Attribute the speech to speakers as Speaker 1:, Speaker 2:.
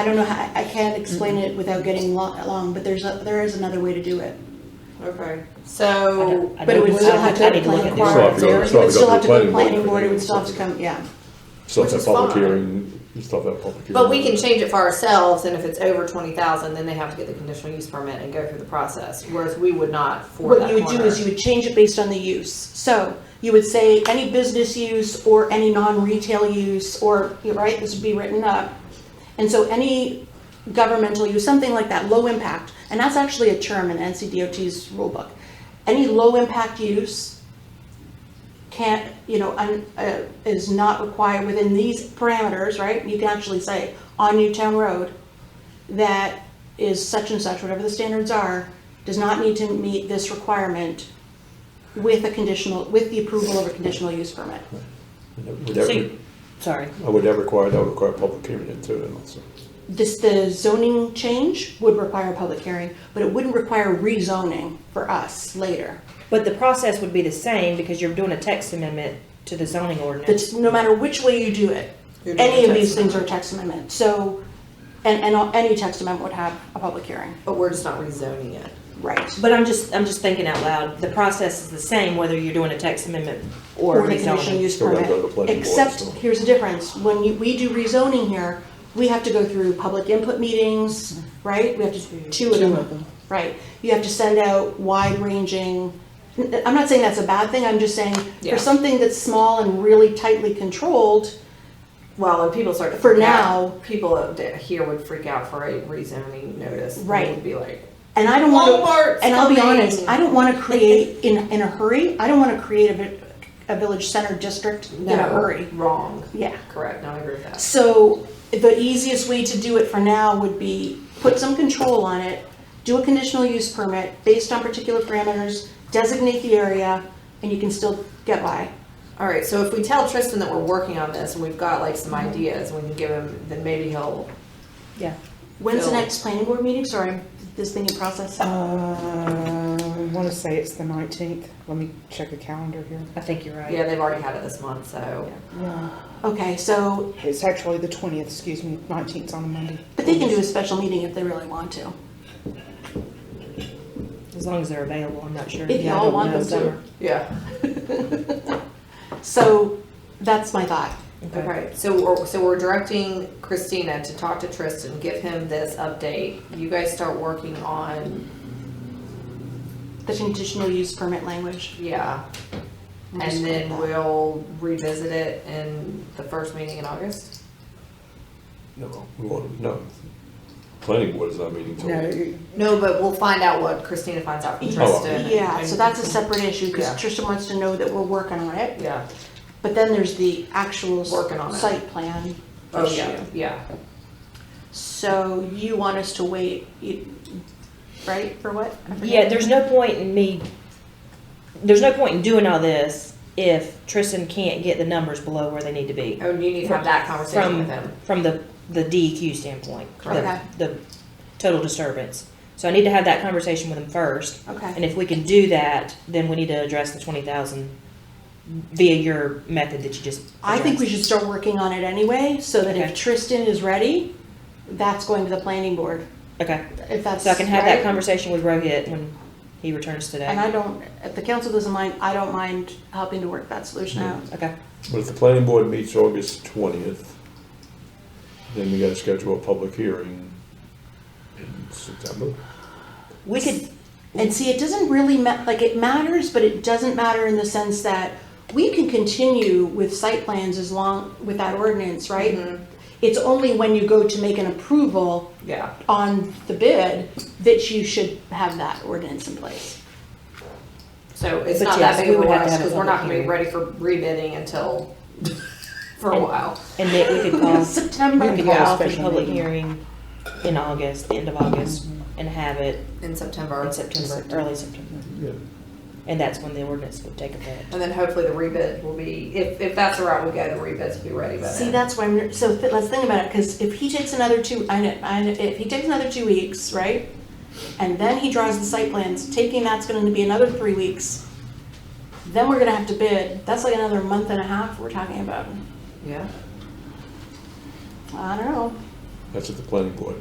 Speaker 1: I don't know how, I- I can't explain it without getting lo- long, but there's, a- there is another way to do it.
Speaker 2: Okay.
Speaker 3: So,
Speaker 1: But it would still have to
Speaker 3: I
Speaker 1: go to
Speaker 3: didn't look
Speaker 1: planning
Speaker 3: at
Speaker 4: this. Still have
Speaker 1: board.
Speaker 4: to go-
Speaker 1: It would
Speaker 4: still have to go
Speaker 1: still
Speaker 4: to
Speaker 1: have to go to
Speaker 4: planning board.
Speaker 1: planning board, it would still have to come, yeah.
Speaker 4: Still
Speaker 2: Which
Speaker 4: have that
Speaker 2: is
Speaker 4: public
Speaker 2: fine.
Speaker 4: hearing, you still have that public hearing.
Speaker 3: But we can change it for ourselves, and if it's over twenty thousand, then they have to get the conditional use permit and go through the process, whereas we would not for
Speaker 1: What
Speaker 3: that
Speaker 1: you would do
Speaker 3: corner.
Speaker 1: is you would change it based on the use. So you would say any business use or any non-retail use, or, you're right, this would be written up. And so any governmental use, something like that, low impact, and that's actually a term in NCDOT's rule book. Any low impact use can't, you know, un- uh, is not required within these parameters, right? You can actually say on Newtown Road, that is such and such, whatever the standards are, does not need to meet this requirement with a conditional, with the approval of a conditional use permit.
Speaker 4: Would that, re-
Speaker 5: Sorry.
Speaker 4: uh, would that require, that would require public hearing into it also.
Speaker 1: This, the zoning change would require a public hearing, but it wouldn't require rezoning for us later.
Speaker 5: But the process would be the same because you're doing a text amendment to the zoning ordinance.
Speaker 1: That's, no matter which way you do it,
Speaker 3: You're doing
Speaker 1: any
Speaker 3: a
Speaker 1: of these
Speaker 3: text
Speaker 1: things are
Speaker 3: amendment.
Speaker 1: text amendment, so, and, and any text amendment would have a public hearing,
Speaker 3: But we're just not rezoning it.
Speaker 1: right?
Speaker 5: But I'm just, I'm just thinking out loud. The process is the same whether you're doing a text amendment or
Speaker 1: or the conditional
Speaker 5: rezoning.
Speaker 1: use
Speaker 4: Still gotta go to the
Speaker 1: permit.
Speaker 4: planning board,
Speaker 1: Except,
Speaker 4: so.
Speaker 1: here's the difference, when you, we do rezoning here, we have to go through public input meetings, right? We have to, Mm-hmm. two of them, right? You have to send out wide-ranging, n- I'm not saying that's a bad thing, I'm just saying,
Speaker 3: Yeah.
Speaker 1: for something that's small and really tightly controlled,
Speaker 3: Well, and people start to
Speaker 1: For
Speaker 3: freak out.
Speaker 1: now-
Speaker 3: people up there here would freak out for a rezoning notice. They
Speaker 1: Right.
Speaker 3: would be like,
Speaker 1: and I don't wanna.
Speaker 3: Walmart's
Speaker 1: And I'll be
Speaker 3: coming.
Speaker 1: honest, I don't wanna create, in, in a hurry, I don't wanna create a, vi- a village center district in
Speaker 3: no,
Speaker 1: a hurry.
Speaker 3: wrong.
Speaker 1: Yeah.
Speaker 3: Correct. No, I agree with that.
Speaker 1: So the easiest way to do it for now would be put some control on it, do a conditional use permit based on particular parameters, designate the area, and you can still get by.
Speaker 3: All right. So if we tell Tristan that we're working on this and we've got like some ideas, and we can give him, then maybe he'll.
Speaker 5: Yeah.
Speaker 1: When's the
Speaker 3: No.
Speaker 1: next planning board meeting? Sorry, I'm- this thing in process.
Speaker 6: Uh, I want to say it's the 19th. Let me check the calendar here.
Speaker 5: I think you're right.
Speaker 3: Yeah, they've already had it this month, so
Speaker 1: Okay, so,
Speaker 6: It's actually the 20th, excuse me, 19th's on a Monday.
Speaker 1: but they can do a special meeting if they really want to.
Speaker 5: As long as they're available, I'm not sure.
Speaker 1: If
Speaker 5: Yeah, I
Speaker 1: y'all
Speaker 5: don't
Speaker 1: want
Speaker 5: know.
Speaker 1: them to.
Speaker 5: Summer.
Speaker 3: yeah.
Speaker 1: So that's my thought.
Speaker 5: Okay.
Speaker 3: Okay, so we're, so we're directing Christina to talk to Tristan, give him this update. You guys start working on,
Speaker 1: The conditional use permit language.
Speaker 3: yeah. And then we'll revisit it in the first meeting in August.
Speaker 4: No, we want, no. Planning board is not meeting till.
Speaker 6: No, you-
Speaker 3: No, but we'll find out what Christina finds out from
Speaker 1: Yeah.
Speaker 3: Tristan. and-
Speaker 1: Yeah, so that's a separate issue
Speaker 3: Yeah.
Speaker 1: because Trisha wants to know that we're working on it.
Speaker 3: Yeah,
Speaker 1: But then there's the actual s-
Speaker 3: Working on it.
Speaker 1: site plan
Speaker 3: oh,
Speaker 1: issue.
Speaker 3: yeah, yeah.
Speaker 1: So you want us to wait, you- right, for what? I forget.
Speaker 5: Yeah, there's no point in me, there's no point in doing all this if Tristan can't get the numbers below where they need to be.
Speaker 3: Oh, and you need to have that conversation with him.
Speaker 5: From the, the DEQ standpoint. the-
Speaker 1: Okay.
Speaker 5: The total disturbance. So I need to have that conversation with him first. And
Speaker 1: Okay,
Speaker 5: if we can do that, then we need to address the twenty thousand via your method that you just.
Speaker 1: I think we
Speaker 5: addressed.
Speaker 1: should start working on it anyway, so that if
Speaker 5: Okay.
Speaker 1: Tristan is ready, that's going to the planning board,
Speaker 5: Okay,
Speaker 1: if that's.
Speaker 5: so I can have that
Speaker 1: right?
Speaker 5: conversation with Rohit when he returns today.
Speaker 1: And I don't, if the council doesn't mind, I don't mind helping to work that solution out.
Speaker 5: Okay,
Speaker 4: But if the planning board meets August twentieth, then we gotta schedule a public hearing in September.
Speaker 5: we could,
Speaker 1: And see, it doesn't really ma- like it matters, but it doesn't matter in the sense that we can continue with site plans as long with that ordinance, right?
Speaker 5: Mm-hmm.
Speaker 3: Mm-hmm.
Speaker 1: It's only when you go to make an approval
Speaker 3: Yeah,
Speaker 1: on the bid that you should have that ordinance in place.
Speaker 3: so it's
Speaker 5: But
Speaker 3: not
Speaker 5: yes,
Speaker 3: that big
Speaker 5: we
Speaker 3: of a
Speaker 5: would have to
Speaker 3: rush,
Speaker 5: have a
Speaker 3: because we're not gonna
Speaker 5: public
Speaker 3: be ready
Speaker 5: hearing.
Speaker 3: for rebidding until, for a
Speaker 5: And-
Speaker 3: while.
Speaker 5: and Nick, we could call, we
Speaker 1: September.
Speaker 5: could
Speaker 6: call a
Speaker 5: call for the
Speaker 6: special
Speaker 5: public
Speaker 6: meeting.
Speaker 5: hearing in August, the end of August, and have it
Speaker 3: In September.
Speaker 5: in September, early September.
Speaker 4: Yeah.
Speaker 5: And that's when the ordinance would take effect.
Speaker 3: And then hopefully the rebid will be, if, if that's the route we go, the rebids will be ready by then.
Speaker 1: See, that's why I'm so th- let's think about it because if he takes another two, I know, I know, if he takes another two weeks, right? And then he draws the site plans, taking that's going to be another three weeks. Then we're going to have to bid. That's like another month and a half we're talking about.
Speaker 3: Yeah.
Speaker 1: I don't know.
Speaker 4: That's at the planning board.